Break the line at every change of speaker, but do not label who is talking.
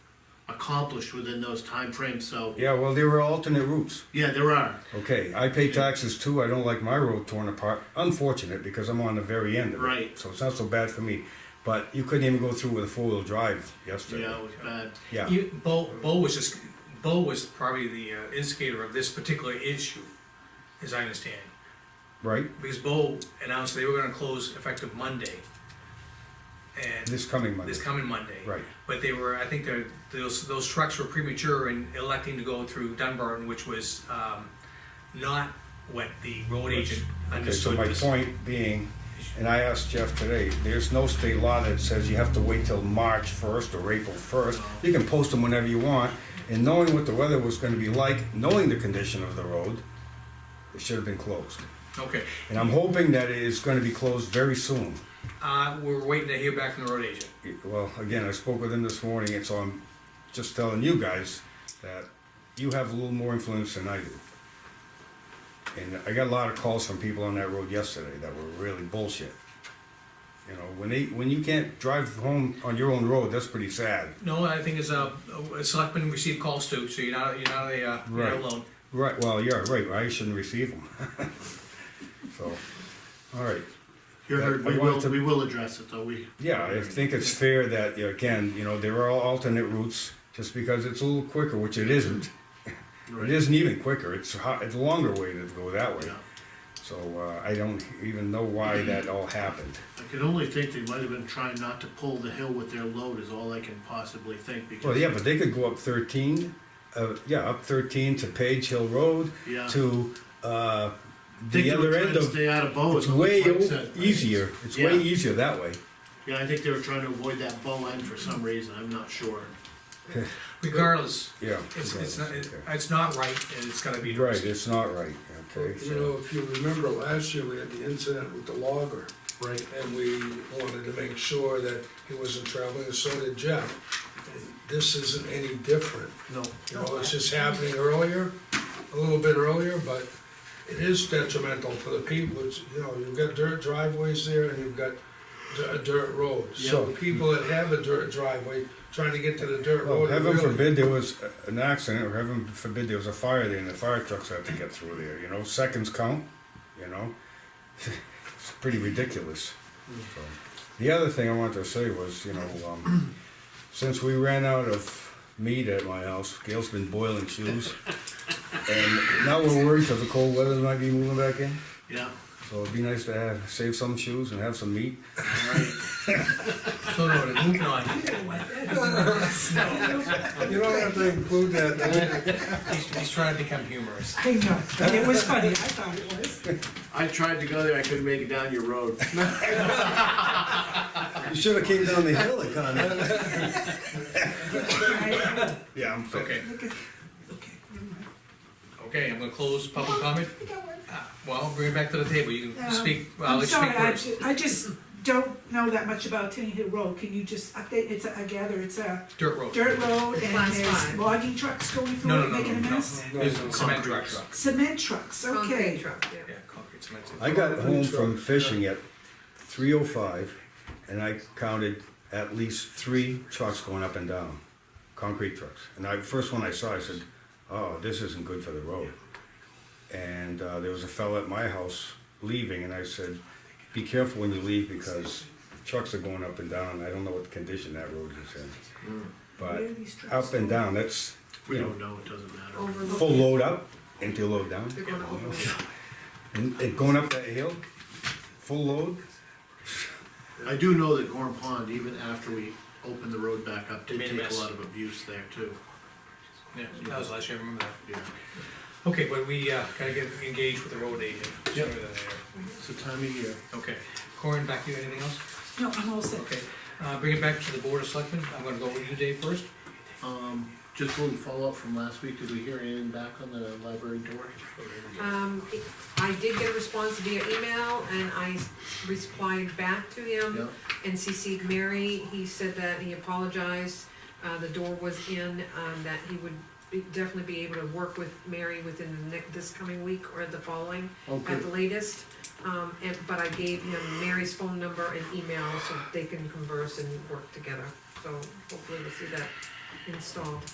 accomplished within those timeframes, so,
Yeah, well, there were alternate routes.
yeah, there are.
Okay, I pay taxes too. I don't like my road torn apart. Unfortunate because I'm on the very end of it.
Right.
So it's not so bad for me. But you couldn't even go through with a four wheel drive yesterday.
Yeah, it was bad.
Yeah.
You, Bo, Bo was just, Bo was probably the uh, instigator of this particular issue, as I understand.
Right?
Because Bo announced they were gonna close effective Monday. And
This coming Monday.
this coming Monday.
Right.
But they were, I think they're, those, those trucks were premature in electing to go through Dunbarton, which was, um, not what the road agent
Okay, so
understood.
my
this-
point being, and I asked Jeff today, there's no state law that says you have to wait till March first or April first. You can post them whenever you want, and knowing what the weather was gonna be like, knowing the condition of the road, it should have been closed.
Okay,
And I'm hoping that it is gonna be closed very soon.
uh, we're waiting to hear back from the road agent.
It- Well, again, I spoke with him this morning, and so I'm just telling you guys that you have a little more influence than I do. And I got a lot of calls from people on that road yesterday that were really bullshit. You know, when they, when you can't drive home on your own road, that's pretty sad.
No, I think it's uh, a, a selectman received calls too, so you're not, you're not a, uh, you're not
Right.
alone.
Right, well, yeah, right, I shouldn't receive them. So, all right.
You heard,
I
we
wanted
will,
to-
we will address it, though, we.
Yeah, I think it's fair that, you know, again, you know, there are alternate routes, just because it's a little quicker, which it isn't. It
Right.
isn't even quicker, it's ho it's a longer way to go that way.
Yeah.
So, uh, I don't even know why that all happened.
I can only think they might have been trying not to pull the hill with their load is all I can possibly think
Well,
because,
yeah, but they could go up thirteen, uh, yeah, up thirteen to Page Hill Road,
yeah.
to, uh,
Think
the
they were
other
trying
end
to
of,
stay out of bow.
it's
is what
way
Mike said.
easier, it's
Yeah.
way easier that way.
Yeah, I think they were trying to avoid that bow end for some reason, I'm not sure.
Regardless,
Yeah.
it's, it's not, it-
okay.
it's not right, and it's gotta be
Right,
addressed.
it's not right, okay,
You
so,
know, if you remember last year, we had the incident with the logger,
Right.
and we wanted to make sure that he wasn't traveling, and so did Jeff. And This isn't any different,
No.
you know, it's just happening earlier, a little bit earlier, but it is detrimental to the people, it's, you know, you've got dirt driveways there and you've got di- dirt roads. So
Yeah.
people that have a dirt driveway, trying to get to the dirt
well,
road. are
heaven
really-
forbid there was a- an accident, or heaven forbid there was a fire there, and the fire trucks had to get through there, you know, seconds count, you know? It's pretty ridiculous. So, The other thing I wanted to say was, you know, um, since we ran out of meat at my house, Gail's been boiling shoes. And now we're worried because the cold weather might be moving back in,
Yeah,
so it'd be nice to have, save some shoes and have some meat.
all right.
So noted, moving on.
You don't have to include that.
He's, he's trying to become humorous.
I know, it was funny, I thought it was.
I tried to go there, I couldn't make it down your road.
You should have came down the hill, it kinda.
I-
Yeah, I'm fit.
Okay,
look at- okay, never mind.
okay, I'm gonna close public comment.
I got one.
Uh, Well, bring it back to the table, you can
Um,
speak, well,
I'm
let's speak
sorry, I
first.
ju- I just don't know that much about Tenny Hill Road, can you just update, it's, a- I gather it's a
Dirt road.
dirt road and
Class
there's
five.
logging trucks going
No,
through
no,
it,
no,
making a
no, no,
mess?
there's a cement truck.
Cement trucks,
Concrete
okay.
truck, yeah.
Yeah, concrete, cement.
I got home from fishing at three oh five, and I counted at least three trucks going up and down, concrete trucks. And I, first one I saw, I said, oh, this isn't good for the road. And, uh, there was a fella at my house leaving, and I said, be careful when you leave, because trucks are going up and down, and I don't know what condition that road is in.
Where are
But
these trucks
up and
going?
down, that's,
We
you
don't
know,
know, it doesn't matter.
Overlook.
full load up, empty load down.
They're gonna overlook.
And and going up that hill, full load,
I do know that Gorm Pond, even after we opened the road back up, did
Made a
take a
mess.
lot of abuse there too.
Yeah, that was last year, I remember
Yeah.
that. Okay, but we, uh, gotta get engaged with the road agent.
Yep.
Remember that there.
It's the time of year.
Okay, Corin, back to you, anything else?
No, I'm all set.
Okay, uh, bring it back to the board of selectmen, I'm gonna go with you, Dave, first.
Um, just a little follow-up from last week, did we hear anything back on the library door?
Um, I did get a response via email and I replied back to
Yeah,
him and CC'd Mary. He said that he apologized, uh, the door was in, um, that he would be- definitely be able to work with Mary within the next, this coming week or the following
okay,
at the latest. Um, and, but I gave him Mary's phone number and email so they can converse and work together. So hopefully we'll see that installed.